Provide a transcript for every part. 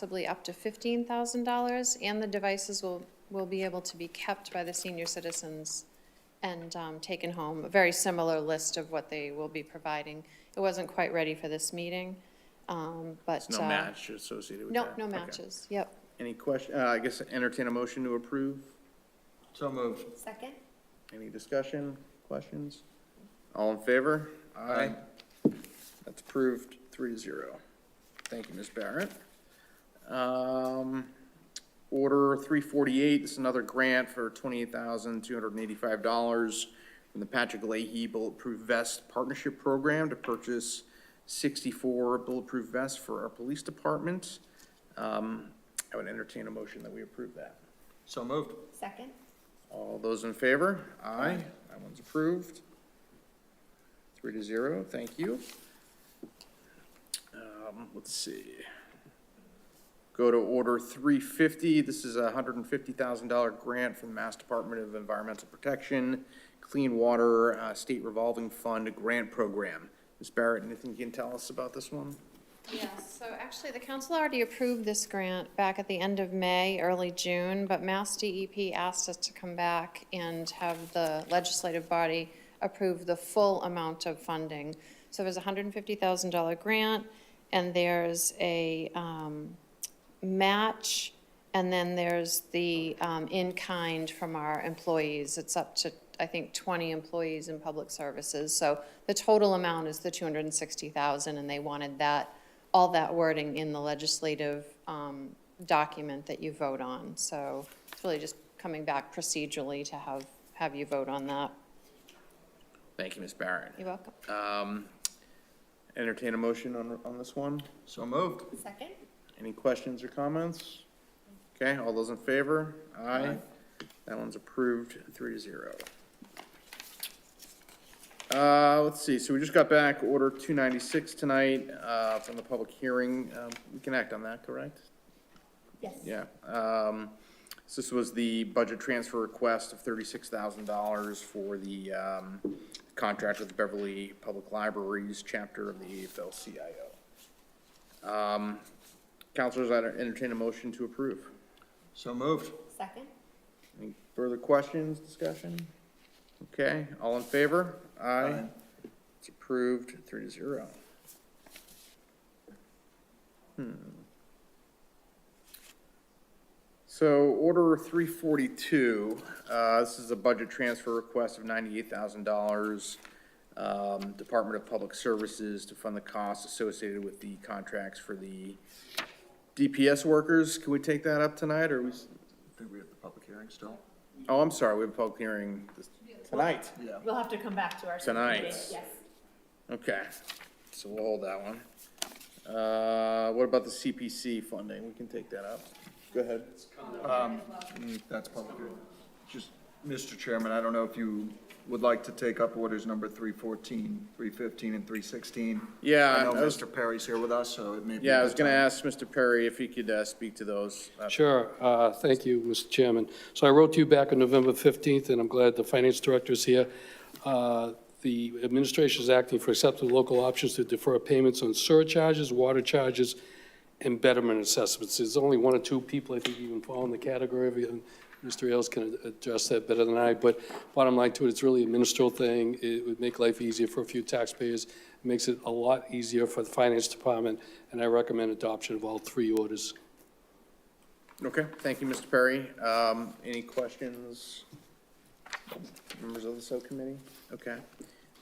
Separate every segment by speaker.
Speaker 1: possibly up to fifteen thousand dollars, and the devices will, will be able to be kept by the senior citizens and um, taken home, a very similar list of what they will be providing. It wasn't quite ready for this meeting, um, but.
Speaker 2: There's no
Speaker 1: uh,
Speaker 2: match associated with
Speaker 1: No,
Speaker 2: that?
Speaker 1: no
Speaker 2: Okay.
Speaker 1: matches, yep.
Speaker 2: Any question, uh, I guess entertain a motion to approve?
Speaker 3: So moved.
Speaker 4: Second?
Speaker 2: Any discussion, questions? All in favor?
Speaker 3: Aye.
Speaker 2: That's approved, three to zero. Thank you, Ms. Barrett. Um, Order 348, this is another grant for $28,285 from the Patrick Leahy Bulletproof Vest Partnership Program to purchase 64 bulletproof vests for our police department. Um, I would entertain a motion that we approve that.
Speaker 3: So moved.
Speaker 4: Second?
Speaker 2: All those in favor? Aye. That one's approved. Three to zero, thank you. Um, let's see. Go to order three fifty, this is a hundred and fifty thousand dollar grant from the Mass Department of Environmental Protection, Clean Water, uh, State Revolving Fund Grant Program. Ms. Barrett, anything you can tell us about this one?
Speaker 1: Yes, so actually, the council already approved this grant back at the end of May, early June, but Mass DEP asked us to come back and have the legislative body approve the full amount of funding. So there's a hundred and fifty thousand dollar grant, and there's a, um, match, and then there's the, um, in-kind from our employees. It's up to, I think, twenty employees in public services. So the total amount is the two hundred and sixty thousand, and they wanted that, all that wording in the legislative, um, document that you vote on. So it's really just coming back procedurally to have, have you vote on that.
Speaker 2: Thank you, Ms. Barrett.
Speaker 1: You're welcome.
Speaker 2: Um, entertain a motion on, on this one?
Speaker 3: So moved.
Speaker 4: Second?
Speaker 2: Any questions or comments? Okay, all those in favor? Aye.
Speaker 3: Aye.
Speaker 2: That one's approved, three to zero. Uh, let's see, so we just got back order two ninety-six tonight, uh, from the public hearing. Um, we can act on that, correct?
Speaker 4: Yes.
Speaker 2: Yeah, um, so this was the budget transfer request of thirty-six thousand dollars for the, um, contract with Beverly Public Libraries, chapter of the AFL-CIO. Um, counselors, I entertain a motion to approve.
Speaker 3: So moved.
Speaker 4: Second?
Speaker 2: Any further questions, discussion? Okay, all in favor? Aye.
Speaker 3: Aye.
Speaker 2: It's approved, three to zero. Hmm. So order three forty-two, uh, this is a budget transfer request of ninety-eight thousand dollars. Um, Department of Public Services to fund the costs associated with the contracts for the DPS workers. Can we take that up tonight, or we, s-
Speaker 3: I think we have the public hearing still.
Speaker 2: Oh, I'm sorry, we have a public hearing this- tonight.
Speaker 3: Yeah.
Speaker 5: We'll have to come back to our.
Speaker 2: Tonight.
Speaker 5: meeting.
Speaker 4: Yes.
Speaker 2: Okay, so we'll hold that one. Uh, what about the CPC funding? We can take that up. Go ahead.
Speaker 3: Mm, That's public hearing. Just, Mr. Chairman, I don't know if you would like to take up orders number 314, 315, and 316.
Speaker 2: Yeah,
Speaker 3: I know
Speaker 2: I was-
Speaker 3: Mr. Perry's here with us, so it may be.
Speaker 2: Yeah,
Speaker 3: a
Speaker 2: I was
Speaker 3: good
Speaker 2: gonna
Speaker 3: time.
Speaker 2: ask Mr. Perry if he could, uh, speak to those. Uh,
Speaker 6: Sure. Uh, Thank you, Mr. Chairman. So I wrote to you back on November 15th, and I'm glad the finance director is here. Uh, The administration is acting for acceptable local options to defer payments on surcharges, water charges, and betterment assessments. There's only one or two people, I think, even fall in the category of, and Mr. Ailes can address that better than I, but bottom line to it, it's really a ministerial thing. It would make life easier for a few taxpayers. It Makes it a lot easier for the finance department, and I recommend adoption of all three orders.
Speaker 2: Okay, thank you, Mr. Perry. Um, any questions? Members of the subcommittee? Okay.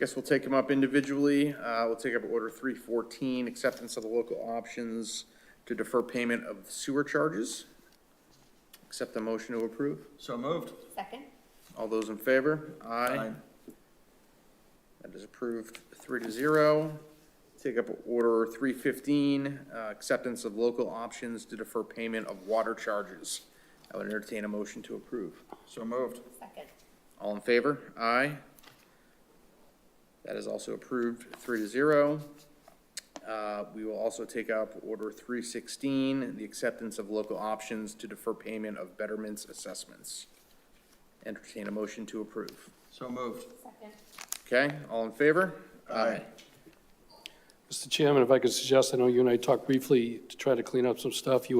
Speaker 2: Guess we'll take them up individually. Uh, we'll take up order three fourteen, acceptance of the local options to defer payment of sewer charges. Accept the motion to approve.
Speaker 3: So moved.
Speaker 4: Second?
Speaker 2: All those in favor?
Speaker 3: Aye.
Speaker 2: That is approved three to zero. Take up order three fifteen, uh, acceptance of local options to defer payment of water charges. I would entertain a motion to approve.
Speaker 3: So moved.
Speaker 4: Second?
Speaker 2: All in favor? Aye. That is also approved, three to zero. Uh, We will also take up Order 316, the acceptance of local options to defer payment of betterments assessments. Entertain a motion to approve.
Speaker 3: So moved.
Speaker 4: Second?
Speaker 2: Okay, all in favor?
Speaker 3: Aye.
Speaker 6: Mr. Chairman, if I could suggest, I know you and I talked briefly to try to clean up some stuff. You